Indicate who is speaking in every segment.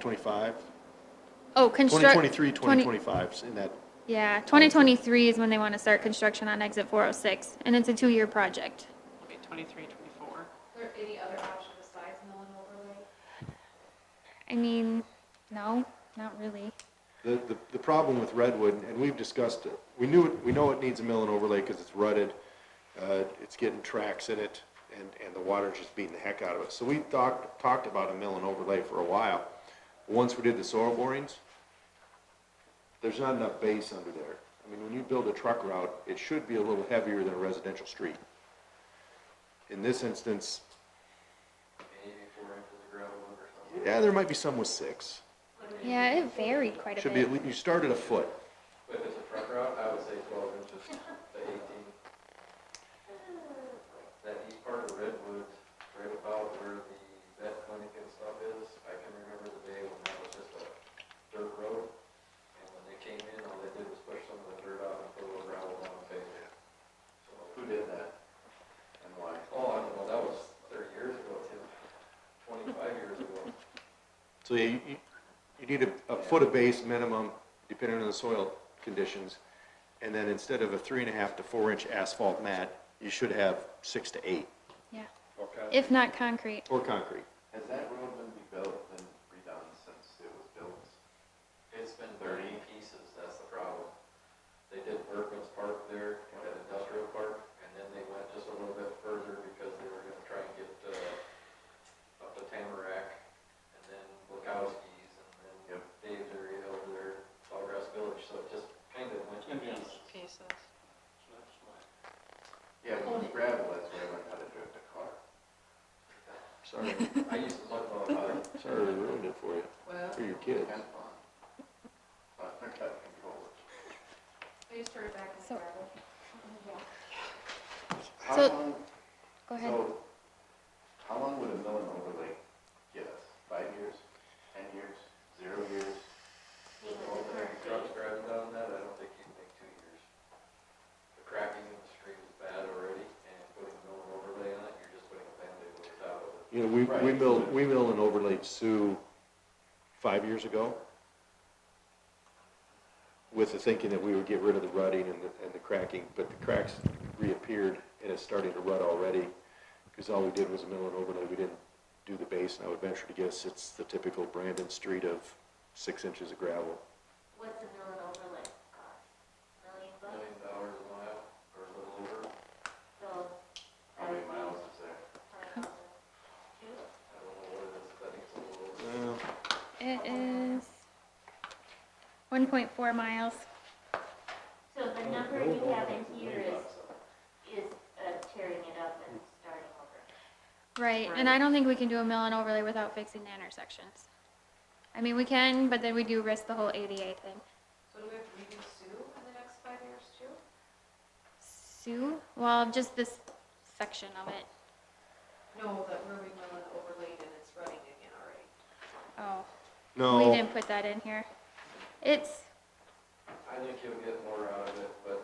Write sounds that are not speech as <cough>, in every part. Speaker 1: 2025,
Speaker 2: Oh, construct.
Speaker 1: 2023,
Speaker 2: 20
Speaker 1: 2025, 's in that,
Speaker 2: Yeah, 2023 is when they want to start construction on exit 406, and it's a two-year project.
Speaker 3: It'll be 23, 24.
Speaker 4: there any other option besides mill and overlay?
Speaker 2: I mean, no, not really.
Speaker 1: the, the, the problem with Redwood, and we've discussed it, we knew, it- we know it needs a mill and overlay because it's rutted, uh, it's getting tracks in it, and, and the water's just beating the heck out of it. So we talked, talked about a mill and overlay for a while. Once we did the soil borings, there's not enough base under there. I mean, when you build a truck route, it should be a little heavier than a residential street. In this instance, yeah, there might be some with six.
Speaker 2: Yeah, it varied quite a
Speaker 1: Should be,
Speaker 2: bit.
Speaker 1: at lea- you start at a foot.
Speaker 5: If it's a truck route, I would say twelve inches to eighteen. That east part of Redwood, right about where the vet clinic and stuff is, I can remember the day when that was just a dirt road. And when they came in, all they did was push some of the dirt out and put a little gravel down and paved it. So who did that? And why? Oh, I don't know, that was thirty years ago, Tim, twenty-five years ago.
Speaker 1: So you, you- you need a, a foot of base minimum, depending on the soil conditions. And then instead of a three and a half to four inch asphalt mat, you should have six to eight,
Speaker 2: Yeah,
Speaker 5: Okay.
Speaker 2: if not concrete.
Speaker 1: or concrete.
Speaker 5: Has that road been rebuilt and redone since it was built? It's been thirty pieces, that's the problem. They did Berkman's Park there, and that industrial park, and then they went just a little bit further because they were gonna try and get, uh, up to Tamarack, and then Bukowski's, and then Dave's area over there, Sawgrass Village, so it just kind of went in pieces.
Speaker 3: Pieces.
Speaker 5: Yeah, when it's gravel, that's where I learned how to drift a car. Sorry. <laughs> I used to look all the time.
Speaker 1: Sorry, we ruined it for you, for your kids.
Speaker 4: They just started back in
Speaker 2: So-
Speaker 4: gravel. Yeah.
Speaker 2: So- Go ahead.
Speaker 5: how long would a mill and overlay get us? Five years, ten years, zero years? With all the trucks driving down that, I don't think you'd make two years. The cracking in the street is bad already, and putting a mill and overlay on it, you're just putting a Band-Aid over the top of it.
Speaker 1: You know, we, we
Speaker 5: Right.
Speaker 1: mill, we mill and overlaid Sioux five years ago with the thinking that we would get rid of the rutting and the, and the cracking, but the cracks reappeared and it's starting to rut already. Cause all we did was mill and overlay, we didn't do the base, and I would venture to guess it's the typical Brandon street of six inches of gravel.
Speaker 6: What's a mill and overlay cost? Million bucks?
Speaker 5: Million dollars a mile, or a little over.
Speaker 6: So.
Speaker 5: How many miles is there?
Speaker 6: uh, two?
Speaker 5: I don't know what it is, but I think it's a little
Speaker 1: Well,
Speaker 5: over.
Speaker 2: It is 1.4 miles.
Speaker 6: So the number you have in here is, Hmm. is uh, tearing it up and starting over.
Speaker 2: Right, and I don't think we can do a mill and overlay without fixing the intersections. I mean, we can, but then we do risk the whole ADA thing.
Speaker 4: So do we have to redo Sue in the next five years too?
Speaker 2: Sue? Well, just this section of it.
Speaker 4: No, that where we mill and overlaid and it's running again already.
Speaker 2: Oh. We
Speaker 1: No,
Speaker 2: didn't put that in here. It's,
Speaker 5: I think you'll get more out of it, but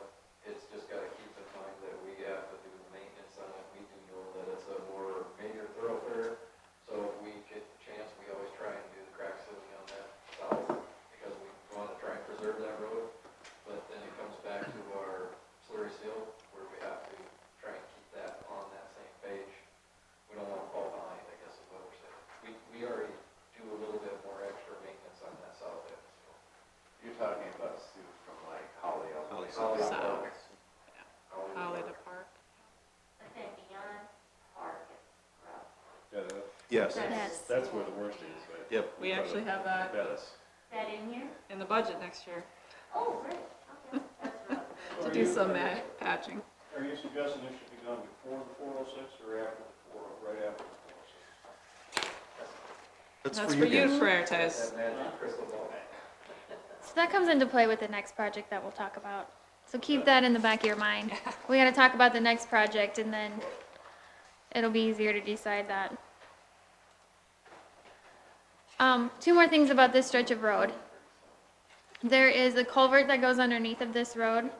Speaker 5: it's just gotta keep in mind that we have to do the maintenance on it. We do know that it's a more major thoroughfare, so if we get the chance, we always try and do the crack sealing on that south, because we wanna try and preserve that road. But then it comes back to our slurry seal, where we have to try and keep that on that same page. We don't wanna fall behind, I guess is what we're saying. We, we already do a little bit more extra maintenance on that south end, so.
Speaker 7: You're talking about Sioux from like Holly up.
Speaker 1: Holly
Speaker 5: Holly
Speaker 3: South.
Speaker 5: Park.
Speaker 3: Holly to Park.
Speaker 6: But then beyond park is rough.
Speaker 1: yes,
Speaker 2: Yes.
Speaker 7: That's where the worst is, right?
Speaker 1: yep.
Speaker 3: We actually have that
Speaker 7: Bettis.
Speaker 6: Is that in here?
Speaker 3: in the budget next year
Speaker 6: Oh, great, okay, that's rough.
Speaker 3: to do some ma- patching.
Speaker 8: Are you suggesting this should be done before the four oh six or after the four, right after the four oh six?
Speaker 1: That's
Speaker 3: That's
Speaker 1: for
Speaker 3: for
Speaker 1: you
Speaker 3: you to
Speaker 1: guys.
Speaker 3: prioritize.
Speaker 5: That magic crystal ball.
Speaker 2: so that comes into play with the next project that we'll talk about. So keep that in the back of your mind. We gotta talk about the next project and then it'll be easier to decide that. Um, two more things about this stretch of road. There is a culvert that goes underneath of this road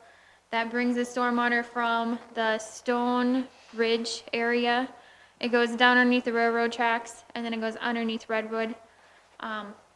Speaker 2: that brings the stormwater from the Stone Ridge area. It goes down underneath the railroad tracks and then it goes underneath Redwood. Um,